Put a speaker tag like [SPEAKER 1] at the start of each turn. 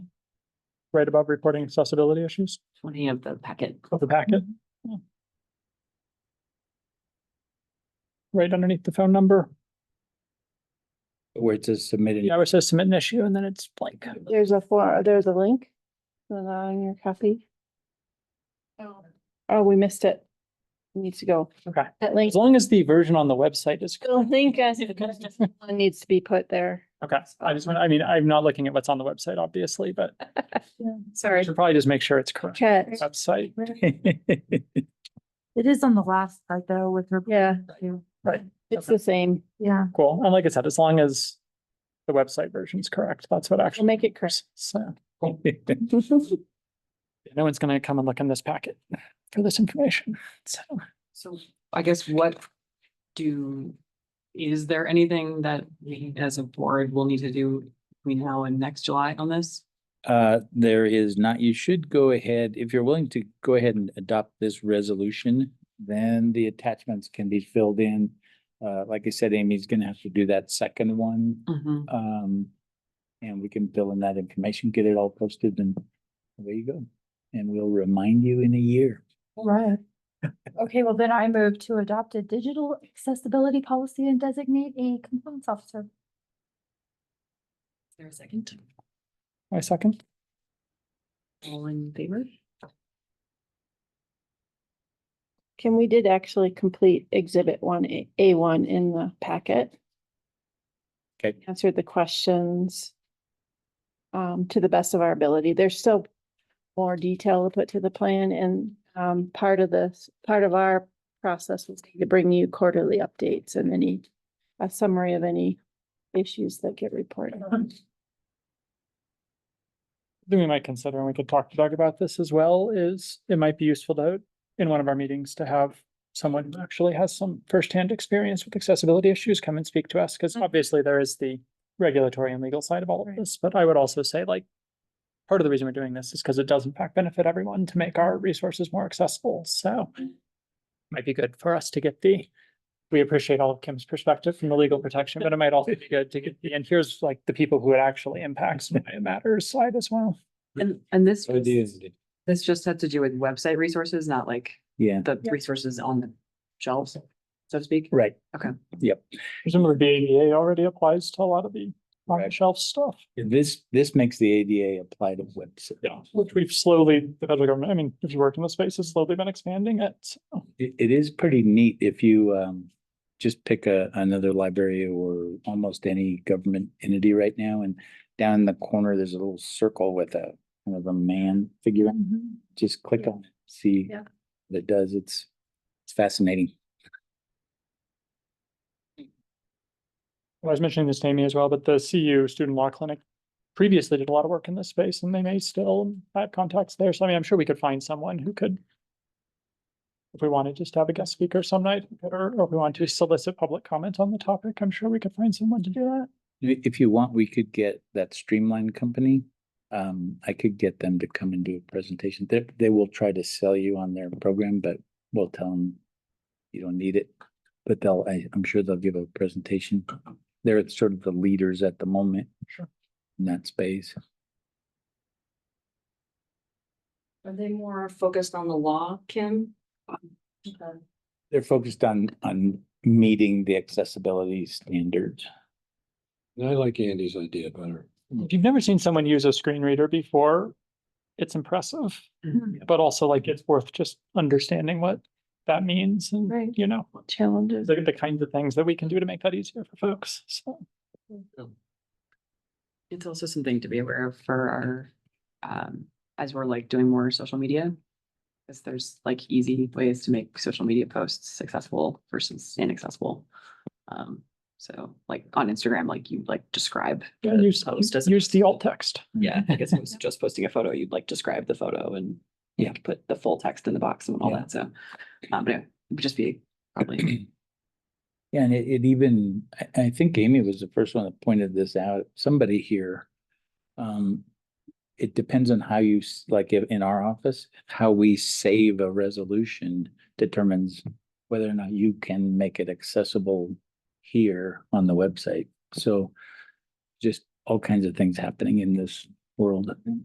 [SPEAKER 1] right above reporting accessibility issues
[SPEAKER 2] twenty of the packet.
[SPEAKER 1] of the packet. Right underneath the phone number,
[SPEAKER 3] where it says submitted.
[SPEAKER 1] yeah, it says submit an issue and then it's blank.
[SPEAKER 4] There's a for, there's a link uh, on your copy. Oh, we missed it. Needs to go.
[SPEAKER 1] Okay.
[SPEAKER 4] That link,
[SPEAKER 1] As long as the version on the website is,
[SPEAKER 4] the link as
[SPEAKER 2] See the customer.
[SPEAKER 4] needs to be put there.
[SPEAKER 1] okay, I just, want. I mean, I'm not looking at what's on the website, obviously, but I
[SPEAKER 4] Sorry.
[SPEAKER 1] should probably just make sure it's correct.
[SPEAKER 4] Chat,
[SPEAKER 1] Website,
[SPEAKER 5] It is on the last slide though with her.
[SPEAKER 4] yeah,
[SPEAKER 5] too.
[SPEAKER 1] right,
[SPEAKER 4] it's the same.
[SPEAKER 5] Yeah,
[SPEAKER 1] cool. And like I said, as long as the website version's correct, that's what
[SPEAKER 4] We'll
[SPEAKER 1] actually.
[SPEAKER 4] make it correct.
[SPEAKER 1] So, no one's gonna come and look in this packet for this information, so.
[SPEAKER 2] So I guess what do, is there anything that we as a board will need to do between now and next July on this?
[SPEAKER 3] Uh, there is not, you should go ahead, if you're willing to go ahead and adopt this resolution, then the attachments can be filled in. Uh, like I said, Amy's gonna have to do that second one,
[SPEAKER 2] Mhm.
[SPEAKER 3] um, and we can fill in that information, get it all posted and there you go. And we'll remind you in a year.
[SPEAKER 5] right. Okay, well then I move to adopt a digital accessibility policy and designate a compliance officer.
[SPEAKER 2] Is there a second?
[SPEAKER 1] My second,
[SPEAKER 2] All in favor?
[SPEAKER 4] Kim, we did actually complete exhibit one, A one in the packet.
[SPEAKER 3] Okay.
[SPEAKER 4] Answered the questions. Um, to the best of our ability. There's still more detail to put to the plan and, um, part of this, part of our process was to bring you quarterly updates and any, a summary of any issues that get reported on.
[SPEAKER 1] thing we might consider, and we could talk to Doug about this as well, is it might be useful to, in one of our meetings, to have someone who actually has some firsthand experience with accessibility issues come and speak to us, because
[SPEAKER 2] Mhm.
[SPEAKER 1] obviously there is the regulatory and legal side of all of
[SPEAKER 4] Right.
[SPEAKER 1] this, but I would also say like part of the reason we're doing this is because it does in fact benefit everyone to make our resources more accessible, so might be good for us to get the we appreciate all of Kim's perspective from the legal protection, but it might also be good to get, the and here's like the people who it actually impacts and why it matters side as well.
[SPEAKER 2] And, and this, was- this just had to do with website resources, not like
[SPEAKER 3] Yeah,
[SPEAKER 2] the resources on the shelves, so to speak?
[SPEAKER 3] right.
[SPEAKER 1] Presumably the ADA already applies to a lot of the on the
[SPEAKER 3] Right.
[SPEAKER 1] shelf stuff,
[SPEAKER 3] This, this makes the ADA apply to website.
[SPEAKER 1] which we've slowly, the federal government, I mean, if you work in the space, has slowly been expanding it. so.
[SPEAKER 3] It, it is pretty neat if you, um, just pick a, another library or almost any government entity right now. And down in the corner, there's a little circle with a, kind of a man figure. Just click on it, see.
[SPEAKER 5] Mm-hmm. Yeah.
[SPEAKER 3] what it does, it's, it's fascinating.
[SPEAKER 1] I was mentioning this to Amy as well, but the CU Student Law Clinic previously did a lot of work in this space and they may still have contacts there. So I mean, I'm sure we could find someone who could if we wanted just to have a guest speaker some night, or or if we want to solicit public comment on the topic, I'm sure we could find someone to do that.
[SPEAKER 3] I- If you want, we could get that Streamline company. Um, I could get them to come and do a presentation. They, they will try to sell you on their program, but we'll tell them you don't need it. But they'll, I, I'm sure they'll give a presentation. They're sort of the leaders at the moment.
[SPEAKER 1] Sure.
[SPEAKER 3] In that space.
[SPEAKER 2] Are they more focused on the law, Kim?
[SPEAKER 3] They're focused on, on meeting the accessibility standards.
[SPEAKER 6] I like Andy's idea better.
[SPEAKER 1] If you've never seen someone use a screen reader before, it's impressive, but also like it's worth just understanding what that means
[SPEAKER 4] Right.
[SPEAKER 1] and, you know,
[SPEAKER 4] Challenges.
[SPEAKER 1] the, the kinds of things that we can do to make that easier for folks. So
[SPEAKER 2] It's also something to be aware of for our, um, as we're like doing more social media. Cause there's like easy ways to make social media posts accessible versus inaccessible. Um, so like on Instagram, like you like describe.
[SPEAKER 1] yeah,
[SPEAKER 2] the
[SPEAKER 1] use,
[SPEAKER 2] post as-
[SPEAKER 1] use the alt text.
[SPEAKER 2] Yeah, I guess it was just posting a photo, you'd like describe the photo and you have to put the full text in the box and all
[SPEAKER 3] Yeah.
[SPEAKER 2] that, so. Um, but it would just be probably,
[SPEAKER 3] Yeah, and it, it even, I, I think Amy was the first one that pointed this out, somebody here. Um, it depends on how you, s- like, i- in our office, how we save a resolution determines whether or not you can make it accessible here on the website. So just all kinds of things happening in this world.